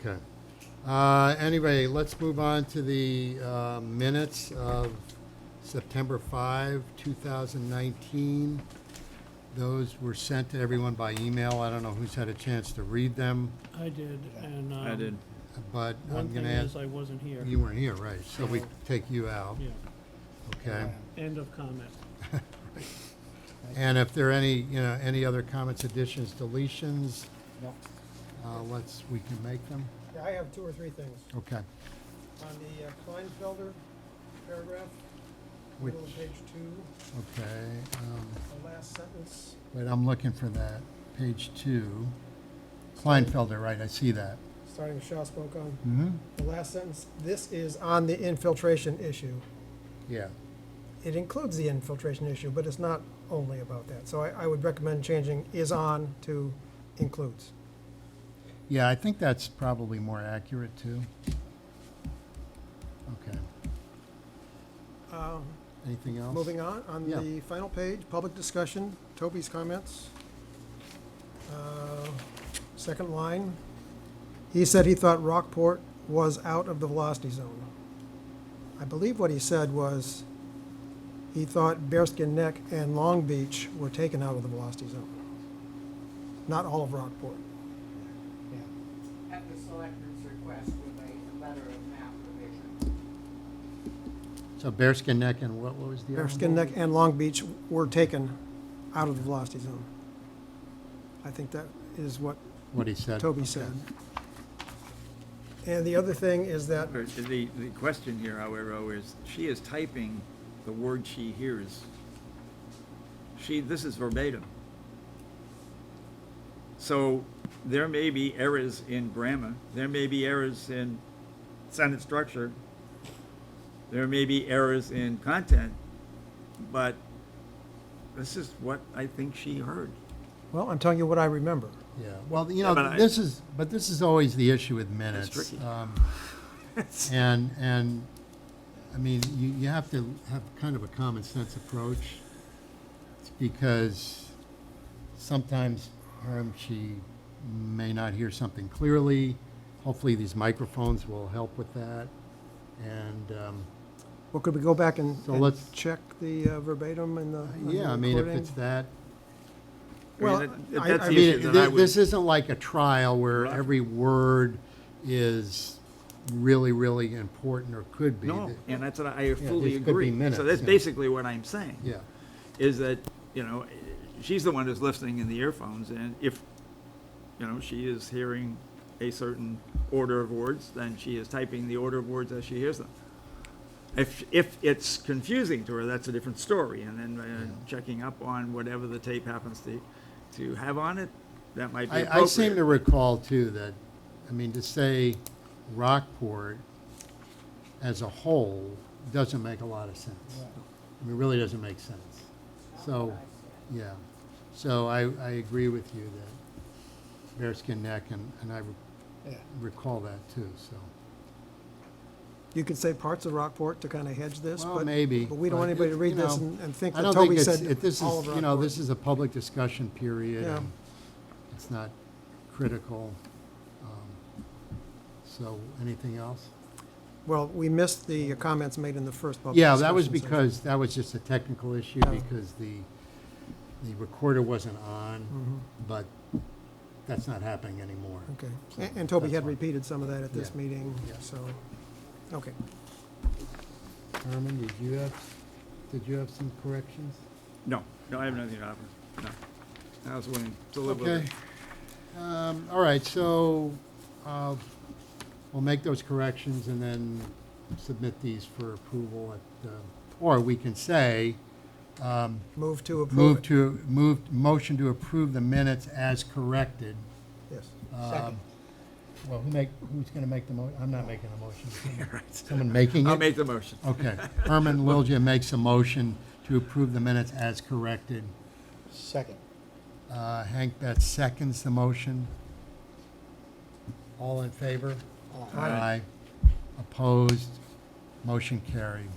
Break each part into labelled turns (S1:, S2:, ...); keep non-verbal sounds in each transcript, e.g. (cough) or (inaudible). S1: Okay. Uh, Anyway, let's move on to the uh, minutes of September 5, 2019. Those were sent to everyone by email. I don't know who's had a chance to read them,
S2: I did, and, um.
S3: I did.
S1: but
S2: One
S1: I'm
S2: thing
S1: going to
S2: is,
S1: ask,
S2: I wasn't here.
S1: you weren't here, right? So we
S2: So-
S1: take you out,
S2: Yeah,
S1: okay?
S2: end of comment.
S1: And if there are any, you know, any other comments, additions, deletions,
S4: No.
S1: uh, let's, we can make them,
S5: Yeah, I have two or three things.
S1: okay?
S5: On the uh, Kleinfelder paragraph,
S1: Which,
S5: middle of page two,
S1: okay, um,
S5: the last sentence,
S1: Wait, I'm looking for that, page two. Kleinfelder, right, I see that.
S5: starting with Shaw spoke on,
S1: Mm-hmm.
S5: the last sentence, this is on the infiltration issue.
S1: Yeah,
S5: It includes the infiltration issue, but it's not only about that. So I, I would recommend changing is on to includes.
S1: yeah, I think that's probably more accurate, too. Okay,
S5: Um,
S1: anything else?
S5: Moving on, on
S1: Yeah.
S5: the final page, public discussion, Toby's comments. Uh, Second line, he said he thought Rockport was out of the velocity zone. I believe what he said was, he thought Bearskin Neck and Long Beach were taken out of the velocity zone. Not all of Rockport.
S6: at the selectmen's request with a letter of map revision.
S1: So Bearskin Neck and what, what was the other one?
S5: Bearskin Neck and Long Beach were taken out of the velocity zone. I think that is what
S1: What he said.
S5: Toby said. And the other thing is that,
S3: Or The, the question here, however, is she is typing the word she hears. She, this is verbatim. So there may be errors in grammar, there may be errors in sentence structure, there may be errors in content, but this is what I think she heard.
S5: well, I'm telling you what I remember.
S1: Yeah, well, you
S3: Yeah, but
S1: know,
S3: I-
S1: this is, but this is always the issue with minutes.
S3: tricky. (laughs)
S1: Um, And, and, I mean, you, you have to have kind of a common sense approach, because sometimes, Herm, she may not hear something clearly. Hopefully, these microphones will help with that, and, um,
S5: Well, could we go back and,
S1: So
S5: and
S1: let's-
S5: check the uh, verbatim and the. and the
S1: yeah, I mean, if
S5: recording?
S1: it's that,
S3: I mean,
S5: Well,
S3: that-
S5: I-
S3: that's
S5: I
S1: I
S3: the
S1: mean,
S3: issue that I
S1: thi-
S3: would-
S1: this isn't like a trial where
S3: Right.
S1: every word is really, really important or could be.
S3: No, and that's what I fully
S1: these could be
S3: agree.
S1: minutes,
S3: So that's
S1: yeah.
S3: basically what I'm saying.
S1: Yeah,
S3: is that, you know, she's the one who's listening in the earphones, and if, you know, she is hearing a certain order of words, then she is typing the order of words as she hears them. If, if it's confusing to her, that's a different story, and then uh, checking up on whatever the tape happens to, to have on it, that might be
S1: I, I seem to
S3: appropriate.
S1: recall too that, I mean, to say Rockport as a whole doesn't make a lot of sense. I mean, really doesn't make sense. So, yeah, so I, I agree with you that Bearskin Neck, and, and I
S4: Yeah.
S1: recall that too, so.
S5: You could say parts of Rockport to kind of hedge this,
S1: Well,
S5: but.
S1: maybe,
S5: But we don't
S1: but
S5: want anybody to
S1: it-
S5: read
S1: you
S5: this
S1: know,
S5: and, and think
S1: I
S5: that
S1: don't think
S5: Toby
S1: it's,
S5: said
S1: it- this
S5: all of
S1: is, you know,
S5: Rockport.
S1: this is a public discussion period.
S5: Yeah.
S1: and It's not critical. Um, So, anything else?
S5: Well, we missed the uh, comments made in the first public.
S1: Yeah, that was
S5: discussion
S1: because, that was just a technical issue
S5: Yeah.
S1: because the, the recorder wasn't on,
S5: session.
S1: but that's not happening anymore.
S5: Mhm, Mm-hmm. Okay. A- And, Toby
S1: That's
S5: had
S1: fine.
S5: repeated some of that at this
S1: Yeah.
S5: meeting,
S1: Yeah.
S5: so, okay.
S1: Herman, did you have, did you have some corrections?
S3: No, no, I have nothing to offer, no. I was willing to live with
S1: Okay.
S3: it.
S1: Um, all right, so, uh, we'll make those corrections and then submit these for approval at, uh, or we can say, um,
S5: Move to approve.
S1: move
S5: it.
S1: to, move, motion to approve the minutes as corrected.
S5: Yes.
S1: Um,
S4: Second.
S1: Well, who make, who's gonna make the mo, I'm not making the motion.
S3: Right.
S1: Someone making it?
S3: I'll make the motion.
S1: Okay, Herman Liljia makes a motion to approve the minutes as corrected.
S4: Second.
S1: Uh, Hank Betts seconds the motion. All in favor?
S4: Aye.
S3: Aye.
S1: Opposed? Motion carried.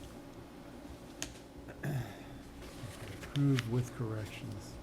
S1: Approved with corrections.